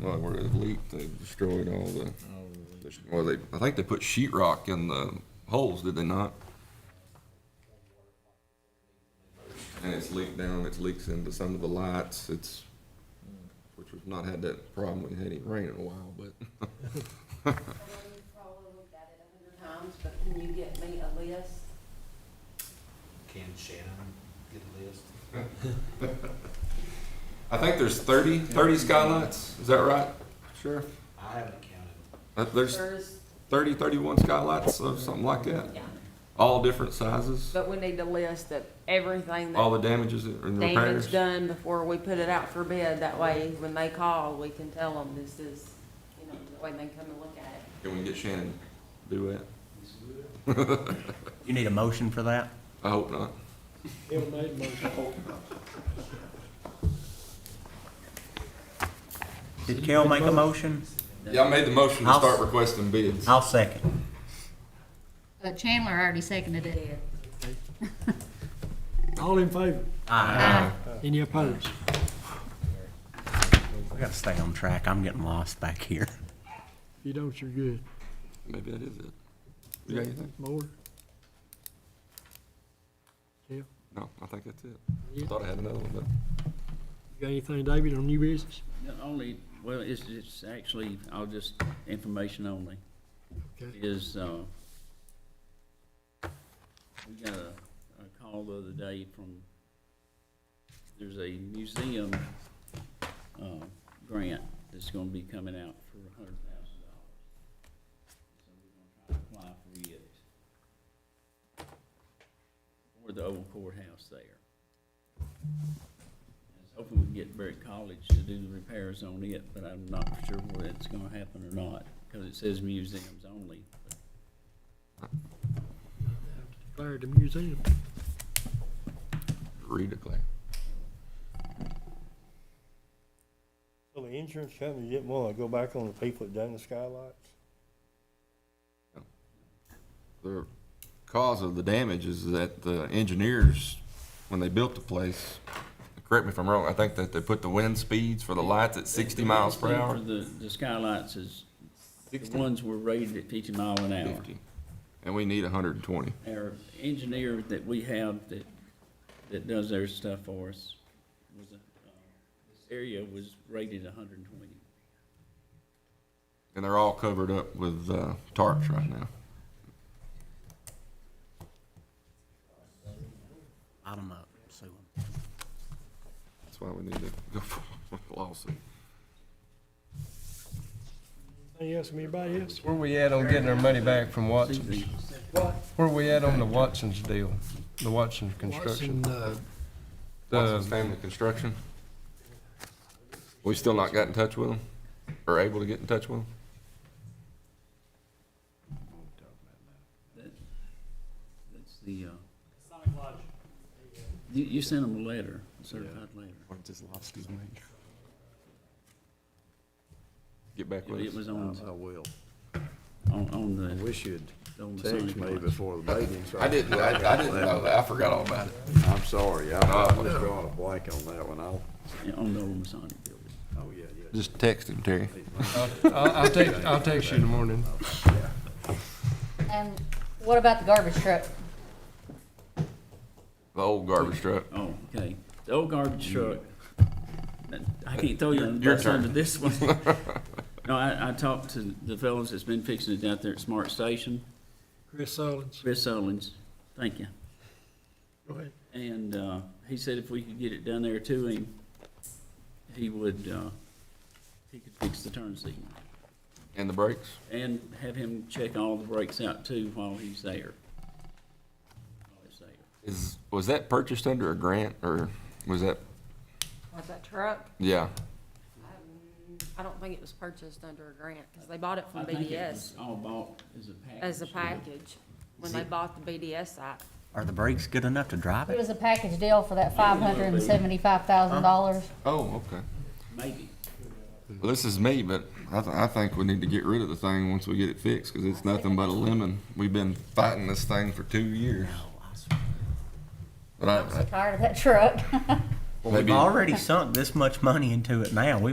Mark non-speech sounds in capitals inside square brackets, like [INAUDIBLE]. Well, where it leaked, they destroyed all the, well, they, I think they put sheetrock in the holes, did they not? And it's leaked down, it's leaks into some of the lights, it's, which we've not had that problem, we had any rain in a while, but. We've probably got it a hundred times, but can you get me a list? Can Shannon get a list? I think there's thirty, thirty skylights, is that right, Sheriff? I haven't counted. Uh, There's There's, thirty, thirty-one skylights, or something like that, yeah, all different sizes, but we need a list of everything all that the damages and repairs. damage done before we put it out for bid. That way, when they call, we can tell them this is, you know, the way they come and look at it. Can we get Shannon to do that? You need a motion for that? I hope not. Bill made a motion. Did Kel make a motion? Yeah, I made the motion to I'll- start requesting bids. I'll second. Uh, Chandler already seconded it. All in favor? Aye. Any opposed? I gotta stay on track. I'm getting lost back here. [LAUGHS] If you don't, you're good. Maybe that is it. You got anything? More? Yeah. No, I think that's it. I You thought I had another one, but got anything, David, on new business? No, Only, well, it's, it's actually, I'll just, information only, Okay. is, uh, we got a, a call the other day from, there's a museum, uh, grant that's gonna be coming out for a hundred thousand dollars. So we're gonna try to apply for it. For the old courthouse there. Hopefully we can get Berry College to do the repairs on it, but I'm not sure whether it's gonna happen or not, because it says museums only. Declared the museum. redeclare. So the insurance company didn't wanna go back on the people that done the skylights? The cause of the damage is that the engineers, when they built the place, correct me if I'm wrong, I think that they put the wind speeds for the lights at sixty miles per For hour. The, the skylights is, the 60, ones were rated at fifty mile an hour. 50. And we need hundred and twenty. Our engineer that we have that, that does their stuff for us was, uh, this area was rated hundred and twenty. And they're all covered up with, uh, tarps right now. Bottom up, sue 'em. That's why we need to go for a lawsuit. Anything else from anybody else? Where we at on getting our money back from Watson's? Where we at on the Watson's deal, the Watson's construction? Watson, uh, Watson's The, Family Construction. We still not got in touch with them, or able to get in touch with them? That's the, uh. You, you sent them a letter, a certified letter. Or just lost his mind. Get back with It us. was on, I will. on, on I the, wish you'd on the text Sonic me lights. before the meeting. so I didn't, I, I didn't know that, I forgot all about it. I'm sorry, I I was drawing a blank on that one. I'll, Yeah, oh, on the old Masonic building. oh, yeah, yeah. Just text him, Terry. I'll, I'll I'll text, I'll text you in the morning. And what about the garbage truck? The old garbage truck. Oh, okay. The old garbage truck. I can't throw you on the Your bus turn. under [LAUGHS] this one. No, I, I talked to the fellows that's been fixing it out there at Smart Station, Chris Solins. Chris Owens, thank you. Go ahead. And, uh, he said if we could get it down there to him, he would, uh, he could fix the turn signal. And the brakes? And have him check all the brakes out too while he's there. While he's there. Is, was that purchased under a grant, or was that, Was that truck? yeah, Um, I don't think it was purchased under a grant, because they bought it I from think it BDS was all bought as a package. as a package, when they bought the BDS site. Are the brakes good enough to drive It it? was a package deal for that five hundred and seventy-five thousand dollars. oh, okay. Maybe. Well, this is me, but I, th- I think we need to get rid of the thing once we get it fixed, cause it's nothing but a lemon. We've been fighting this thing for two years. But I, Tired of that truck. Well, we've Maybe- [LAUGHS] already sunk this much money into it now. We